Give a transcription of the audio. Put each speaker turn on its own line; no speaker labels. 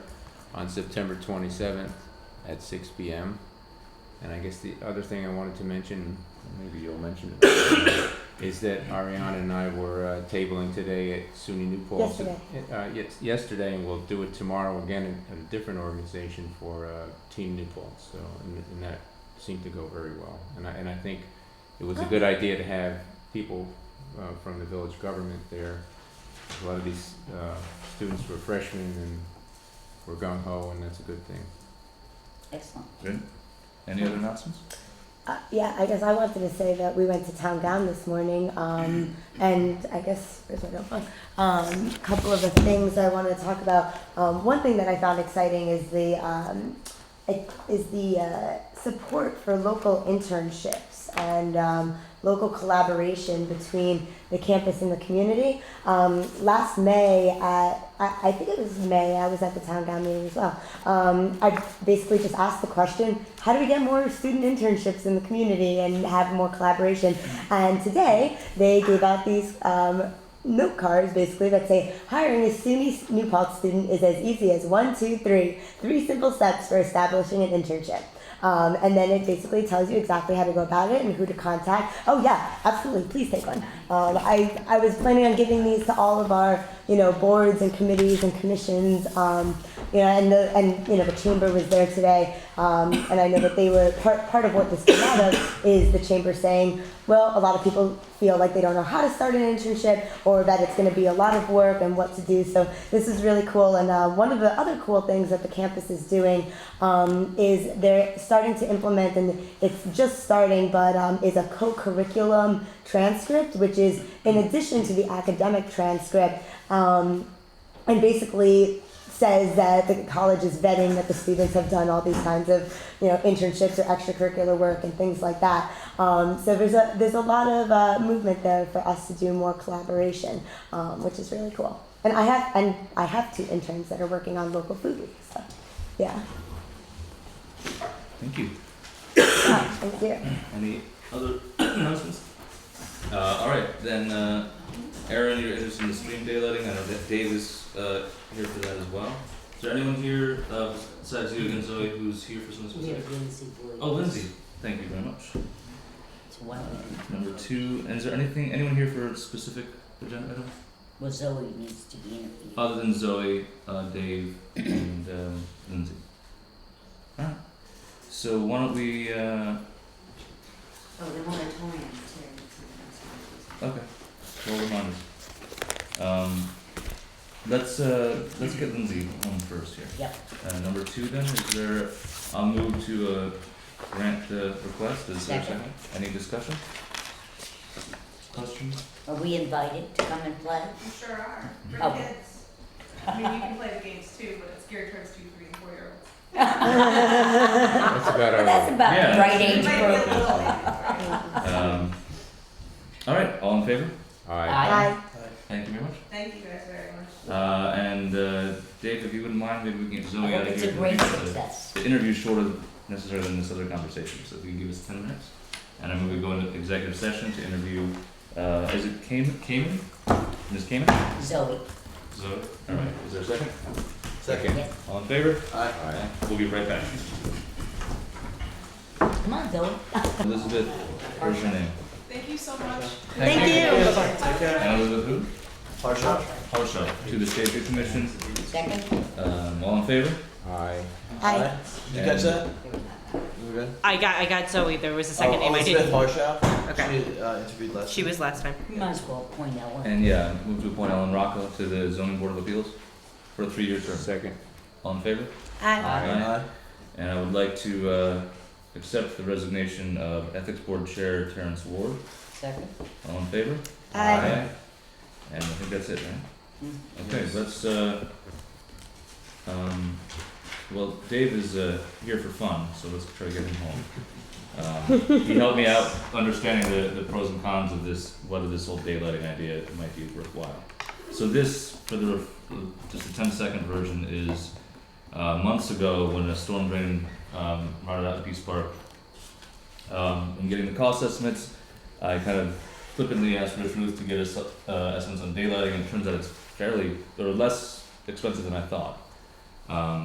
on September twenty-seventh at six P M. And I guess the other thing I wanted to mention, maybe you'll mention it, is that Ariana and I were uh, tabling today at SUNY New Paltz.
Yesterday.
Uh, yes, yesterday, and we'll do it tomorrow again at a different organization for uh, Team New Paltz, so, and, and that seemed to go very well. And I, and I think it was a good idea to have people uh, from the village government there. A lot of these uh, students were freshmen and were gung ho, and that's a good thing.
Excellent.
Any other announcements?
Uh, yeah, I guess I wanted to say that we went to town gown this morning, um, and I guess where's my notebook? Um, a couple of the things I wanted to talk about. Um, one thing that I found exciting is the um, it is the uh, support for local internships and um, local collaboration between the campus and the community. Um, last May, at, I, I think it was May, I was at the town gown meeting as well. Um, I basically just asked the question, how do we get more student internships in the community and have more collaboration? And today, they gave out these um, note cards basically that say hiring a SUNY New Paltz student is as easy as one, two, three, three simple steps for establishing an internship. Um, and then it basically tells you exactly how to go about it and who to contact. Oh yeah, absolutely. Please take one. Um, I, I was planning on giving these to all of our you know boards and committees and commissions. Um, you know, and the and you know the chamber was there today, um, and I know that they were part part of what this came out of is the chamber saying, well, a lot of people feel like they don't know how to start an internship or that it's going to be a lot of work and what to do. So this is really cool. And uh, one of the other cool things that the campus is doing um, is they're starting to implement, and it's just starting, but um, is a co-curriculum transcript, which is in addition to the academic transcript. Um, and basically says that the college is vetting that the students have done all these kinds of you know internships or extracurricular work and things like that. Um, so there's a there's a lot of uh, movement there for us to do more collaboration, um, which is really cool. And I have and I have two interns that are working on local food week. So yeah,
Thank you.
Ah, thank you.
Any other announcements? Uh, all right, then, uh, Aaron, you're interested in the stream daylighting. I know that Dave is uh, here for that as well. Is there anyone here uh, besides you and Zoe who's here for something
We
specific?
have Lindsay Boyd.
Oh, Lindsay. Thank you very much.
It's well,
Number two, and is there anything anyone here for a specific agenda item
well, Zoe needs to be interviewed.
other than Zoe, uh, Dave, and um, Lindsay? All right. So why don't we? Uh,
Oh, the moratorium, sorry, that's
Okay.
something else.
Well reminded. Um, let's uh, let's get Lindsay on first here.
Yep.
Uh, number two then is there? I'll move to uh, grant the request. Is there a
Second.
second? Any discussion? Questions?
Are we invited to come and play?
You sure are,
Oh.
bring kids. I mean, you can play the games too, but it's geared towards two, three, and four year olds.
That's about
Well,
our.
that's about
Yeah.
the right
It
age
might be a
group.
little late.
Um, all right. All in favor?
Aye.
Hi.
Thank you very much.
Thank you guys very much.
Uh, and uh, Dave, if you wouldn't mind, maybe we can get
I
Zoe out
think
of
it's
here. uh,
a great
to make the-
success.
The interview's shorter necessarily than this other conversation, so if you can give us ten minutes. And I'm gonna go into executive session to interview, uh, is it Cayman, Cayman? Ms. Cayman?
Zoe,
So, alright, is there a second?
Second.
yes.
All in favor?
Aye.
We'll be right back.
Come on, Zoe.
Elizabeth, where's your name?
Thank you so much.
Thank you. Bye-bye.
And Elizabeth who? Harshaw. To the State Tree Commission,
Second?
um, all in favor?
Aye.
Hi.
You catch that?
I got I got Zoe. There was a second name I didn't. Okay.
She uh, interviewed last
She was last time.
You might as well point out one.
And yeah, move to appoint Ellen Rocco to the zoning board of appeals for a three-year term.
Second.
All in favor?
Hi.
Aye. And I would like to uh, accept the resignation of Ethics Board Chair Terrence Ward.
Second?
All in favor?
Hi.
And I think that's it, right?
Mm.
Okay, let's, uh, um, well, Dave is uh, here for fun, so let's try to get him home. Um, He helped me out understanding the, the pros and cons of this, whether this whole daylighting idea might be worthwhile. So this, for the, ref- just the ten-second version, is uh, months ago when a storm drain um, rotted out Peace Park. Um, in getting the cost estimates, I kind of flippantly asked Rich Ruth to get us uh, estimates on daylighting, and it turns out it's fairly or less expensive than I thought. Um,